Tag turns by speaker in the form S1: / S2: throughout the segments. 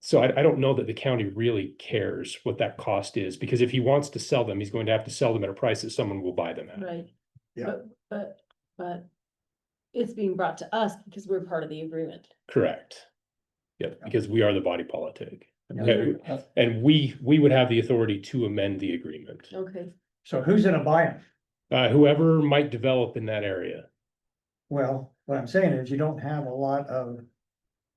S1: So I, I don't know that the county really cares what that cost is, because if he wants to sell them, he's going to have to sell them at a price that someone will buy them at.
S2: Right.
S3: Yeah.
S2: But, but, but it's being brought to us because we're part of the agreement.
S1: Correct. Yep, because we are the body politic.
S3: Yeah.
S1: And and we, we would have the authority to amend the agreement.
S2: Okay.
S3: So who's gonna buy them?
S1: Uh, whoever might develop in that area.
S3: Well, what I'm saying is you don't have a lot of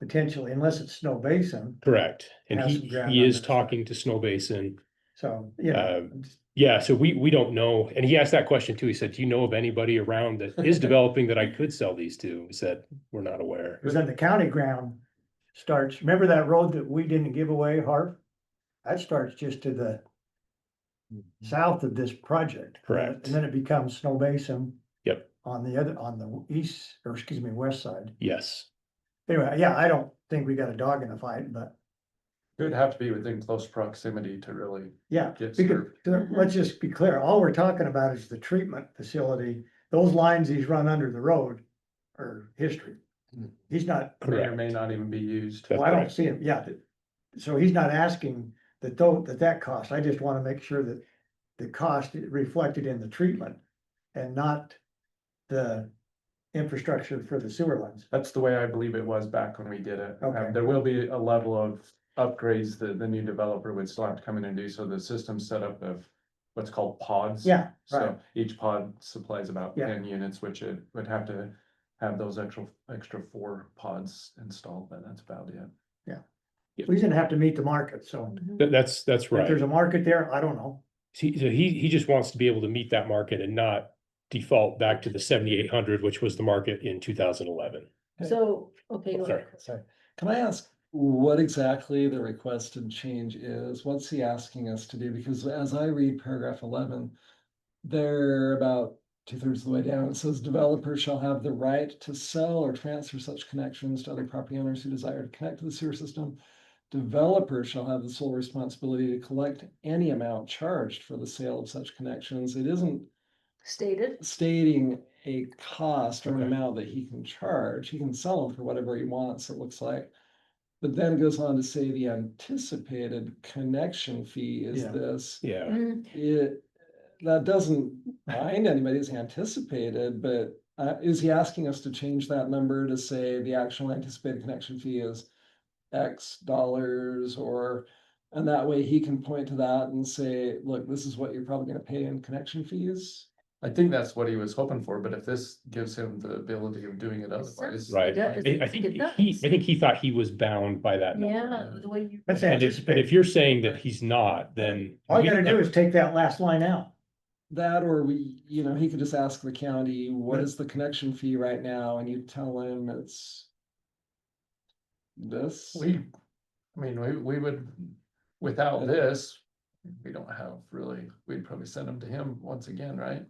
S3: potentially, unless it's Snow Basin,
S1: Correct. And
S3: Has
S1: he,
S3: some ground
S1: he
S3: on
S1: is
S3: their side.
S1: talking to Snow Basin. Uh,
S3: so, you know.
S1: Yeah, so we, we don't know. And he asked that question too. He said, do you know of anybody around that is developing that I could sell these to? We said, we're not aware.
S3: Because then the county ground starts, remember that road that we didn't give away, Harv? That starts just to the south of this project.
S1: Mm-hmm. Correct.
S3: And then it becomes Snow Basin.
S1: Yep.
S3: On the other, on the east, or excuse me, west side.
S1: Yes,
S3: Anyway, yeah, I don't think we got a dog in the fight, but
S4: It would have to be within close proximity to really
S3: yeah.
S4: get
S3: Because,
S4: served.
S3: there- let's just be clear, all we're talking about is the treatment facility, those lines he's run under the road are history. He's not,
S4: May or
S1: correct.
S4: may not even be used.
S1: Hmm. That's
S3: well, I don't
S1: correct.
S3: see him, yeah, th- so he's not asking that though, that that cost, I just wanna make sure that the cost is reflected in the treatment and not the infrastructure for the sewer lines.
S4: That's the way I believe it was back when we did it. Um,
S3: Okay.
S4: There will be a level of upgrades that the new developer would still have to come in and do. So the system setup of what's called pods.
S3: Yeah, right,
S4: So each pod supplies about
S3: Yeah.
S4: ten units, which it would have to have those extra, extra four pods installed, but that's about it.
S3: we didn't have to meet the market, so
S2: Mm-hmm.
S1: That, that's, that's
S3: if there's
S1: right.
S3: a market there, I don't know,
S1: He, so he, he just wants to be able to meet that market and not default back to the seventy-eight hundred, which was the market in two thousand eleven.
S2: So, okay, go
S1: Sorry.
S2: ahead.
S5: Sorry, can I ask what exactly the requested change is? What's he asking us to do? Because as I read paragraph eleven, they're about two thirds of the way down, it says developers shall have the right to sell or transfer such connections to other property owners who desire to connect to the sewer system. Developers shall have the sole responsibility to collect any amount charged for the sale of such connections. It isn't
S2: stated.
S5: stating a cost or an
S1: Okay.
S5: amount that he can charge. He can sell them for whatever he wants, it looks like. But then it goes on to say the anticipated connection fee is
S3: Yeah.
S5: this.
S1: Yeah,
S2: Mm,
S5: It, that doesn't bind anybody's anticipated, but uh, is he asking us to change that number to say the actual anticipated connection fee is X dollars or, and that way he can point to that and say, look, this is what you're probably gonna pay in connection fees?
S4: I think that's what he was hoping for, but if this gives him the ability of doing it otherwise.
S1: right.
S2: Yeah,
S1: I, I
S2: it's-
S1: think
S2: Mm-hmm. it
S1: he,
S2: does.
S1: I think he thought he was bound by that. number.
S2: Yeah, the way you.
S3: that's
S1: And if, and
S3: anticipated.
S1: if you're saying that he's not, then.
S3: All
S1: we-
S3: you gotta do is take that last line out.
S5: That or we, you know, he could just ask the county, what
S3: Right.
S5: is the connection fee right now? And you tell him it's this.
S4: We, I mean, we, we would, without this, we don't have really, we'd probably send them to him once again, right?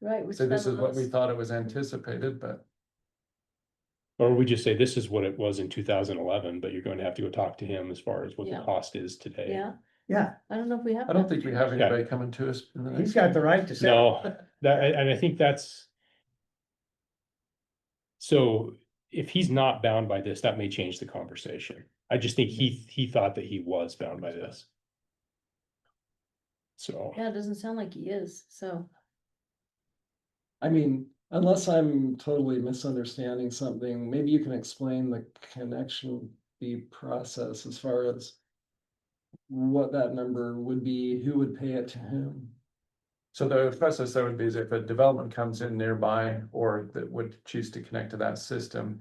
S2: Right. we
S4: So this
S2: spent
S4: is what we
S2: lots.
S4: thought it was anticipated, but
S1: Or we just say this is what it was in two thousand eleven, but you're going to have to go talk to him as far as what the
S2: Yeah.
S1: cost is today.
S2: Yeah,
S3: Yeah,
S2: I don't know if we have.
S4: I don't
S2: that.
S4: think we have
S1: Yeah.
S4: anybody coming to us. in the
S3: he's
S4: next
S3: got the
S4: one.
S3: right to say.
S1: No, that, and and I think that's. So if he's not bound by this, that may change the conversation. I just think he, he thought that he was bound by this. So,
S2: Yeah, it doesn't sound like he is, so.
S5: I mean, unless I'm totally misunderstanding something, maybe you can explain the connection fee process as far as what that number would be, who would pay it to whom?
S4: So the process there would be is if a development comes in nearby or that would choose to connect to that system.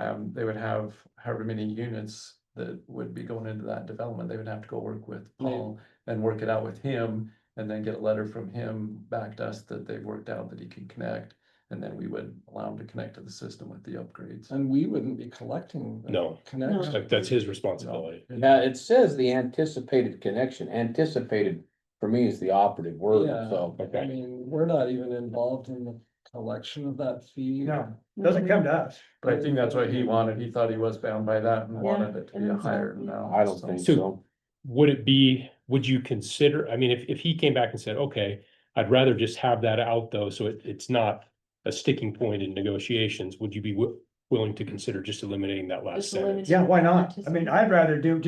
S4: Um, they would have however many units that would be going into that development, they would have to go work with
S5: Yeah.
S4: Paul and work it out with him. And then get a letter from him back to us that they've worked out that he can connect, and then we would allow him to connect to the system with the upgrades.
S5: And we wouldn't be collecting. the
S1: No.
S5: Connection.
S1: that- that's his responsibility.
S6: Now, it says the anticipated connection, anticipated for me is the operative word,
S5: Yeah.
S6: so.
S5: I
S1: Okay,
S5: mean, we're not even involved in the collection of that fee.
S3: No, doesn't come to us.
S4: But I think that's what he wanted, he thought he was bound by that and
S2: Yeah,
S4: wanted it to
S2: it
S4: be a
S2: is
S4: higher
S2: bound, yeah.
S4: amount.
S6: I don't
S4: so.
S6: think
S1: So-
S6: so.
S1: would it be, would you consider, I mean, if, if he came back and said, okay, I'd rather just have that out though, so it, it's not. A sticking point in negotiations, would you be wi- willing to consider just eliminating that last
S2: Just
S1: sentence?
S2: eliminate
S3: Yeah, why not? I mean, I'd rather do, just